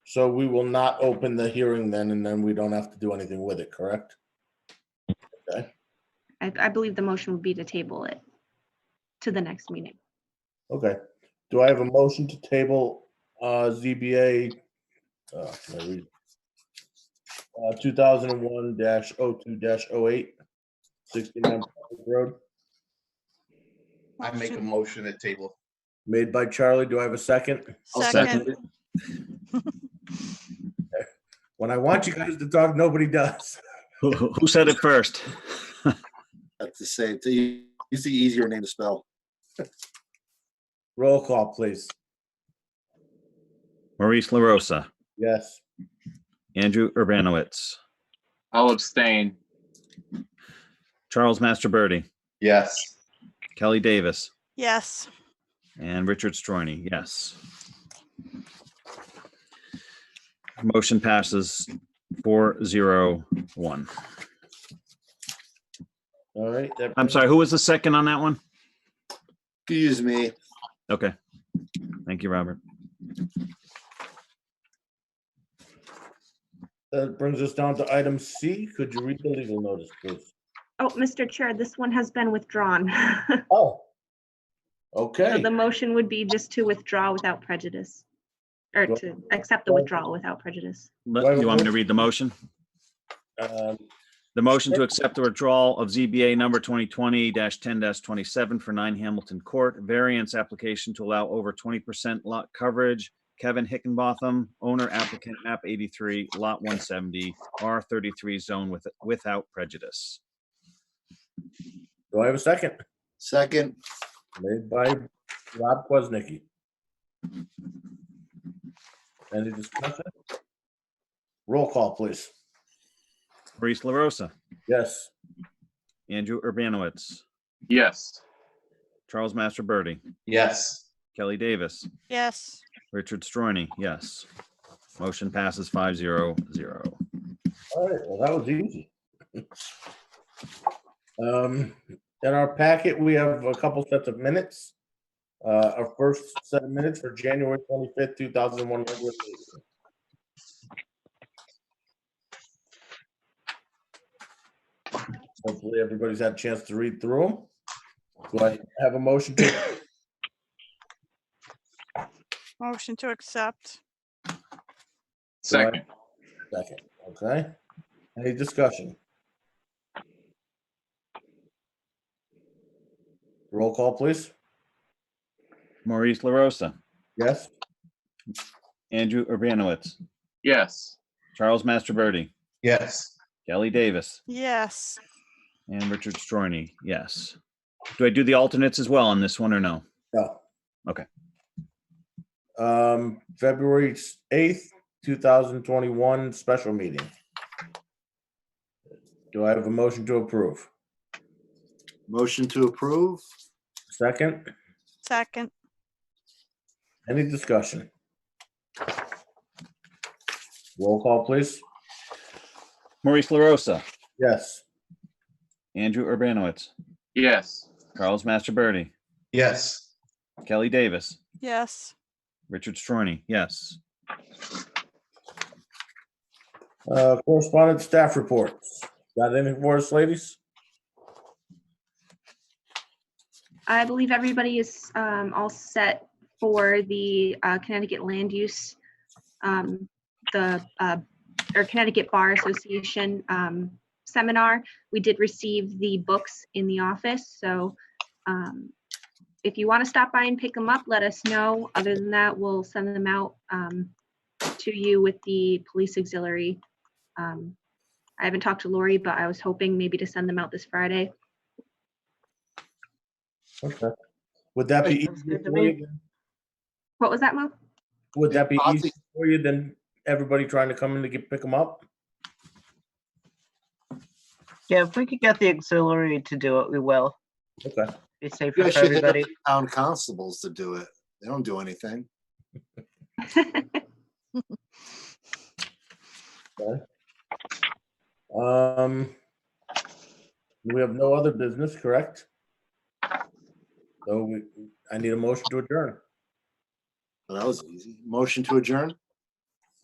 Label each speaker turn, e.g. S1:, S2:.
S1: So we will not open the hearing then, and then we don't have to do anything with it, correct?
S2: I, I believe the motion would be to table it to the next meeting.
S1: Okay. Do I have a motion to table uh, ZBA uh, can I read? Uh, 2001-02-08, 69 Park Road?
S3: I make a motion at table.
S1: Made by Charlie. Do I have a second?
S4: Second.
S1: When I want you guys to talk, nobody does.
S4: Who who said it first?
S5: That's the same. It's the it's the easier name to spell.
S1: Roll call, please.
S4: Maurice LaRosa,
S1: Yes.
S4: Andrew Urbanowitz,
S6: I'll abstain.
S4: Charles Masterbirdy,
S3: Yes.
S4: Kelly Davis,
S7: Yes,
S4: and Richard Stroini, yes. Motion passes four zero one.
S1: All right. that
S4: I'm
S1: brings-
S4: sorry, who was the second on that one?
S5: Excuse me.
S4: Okay. Thank you, Robert.
S1: That brings us down to item C. Could you read the legal notice, please?
S2: Oh, Mr. Chair, this one has been withdrawn.
S1: Oh.
S2: So
S1: Okay.
S2: the motion would be just to withdraw without prejudice. Or
S1: Well-
S2: to accept the withdrawal without prejudice.
S4: Let- You want me to read the motion?
S1: Um,
S4: The motion to accept the withdrawal of ZBA number 2020-10-27 for 9 Hamilton Court, variance application to allow over 20% lot coverage. Kevin Hickenbotham, owner applicant, map 83, lot 170, R33 zone with, without prejudice.
S1: Do I have a second?
S5: Second,
S1: Made by Rob Quaznicki. Any discussion? Roll call, please.
S4: Maurice LaRosa,
S1: Yes.
S4: Andrew Urbanowitz,
S6: Yes.
S4: Charles Masterbirdy,
S3: Yes.
S4: Kelly Davis,
S7: yes.
S4: Richard Stroini, yes. Motion passes 500.
S1: All right, well, that was easy. Um, in our packet, we have a couple sets of minutes. Uh, our first set of minutes for January twenty-fifth, two thousand one. Hopefully, everybody's had a chance to read through them. Do I have a motion to,
S7: Motion to accept.
S6: Second.
S1: second, okay? Any discussion? Roll call, please.
S4: Maurice LaRosa,
S1: Yes?
S4: Andrew Urbanowitz,
S6: Yes.
S4: Charles Masterbirdy.
S3: Yes.
S4: Kelly Davis
S7: Yes,
S4: and Richard Stroini, yes. Do I do the alternates as well on this one or no?
S1: No.
S4: Okay.
S1: Um, February eighth, two thousand twenty-one, special meeting. Do I have a motion to approve?
S5: motion to approve.
S1: Second,
S7: second.
S1: any discussion? Roll call, please.
S4: Maurice LaRosa,
S1: Yes.
S4: Andrew Urbanowitz,
S6: Yes.
S4: Charles Masterbirdy,
S3: Yes.
S4: Kelly Davis,
S7: Yes,
S4: Richard Stroini, yes.
S1: Uh, correspondent staff reports. Got anything for us, ladies?
S2: I believe everybody is um, all set for the uh, Connecticut Land Use, um, the, uh, or Connecticut Bar Association um, seminar. We did receive the books in the office, so um, if you want to stop by and pick them up, let us know. Other than that, we'll send them out um, to you with the police auxiliary. Um, I haven't talked to Lori, but I was hoping maybe to send them out this Friday.
S1: Okay. Would that be easier for you?
S2: What was that, Mo?
S1: Would that be
S5: I'll
S1: easier for you than everybody trying to come in to get, pick them up?
S8: Yeah, if we could get the auxiliary to do it, we will.
S1: Okay.
S8: Be safer
S5: You guys
S8: for
S5: should hit up
S8: everybody.
S5: the town constables to do it. They don't do anything.
S1: Um, we have no other business, correct? So we, I need a motion to adjourn.
S5: Well, that was easy. Motion to adjourn?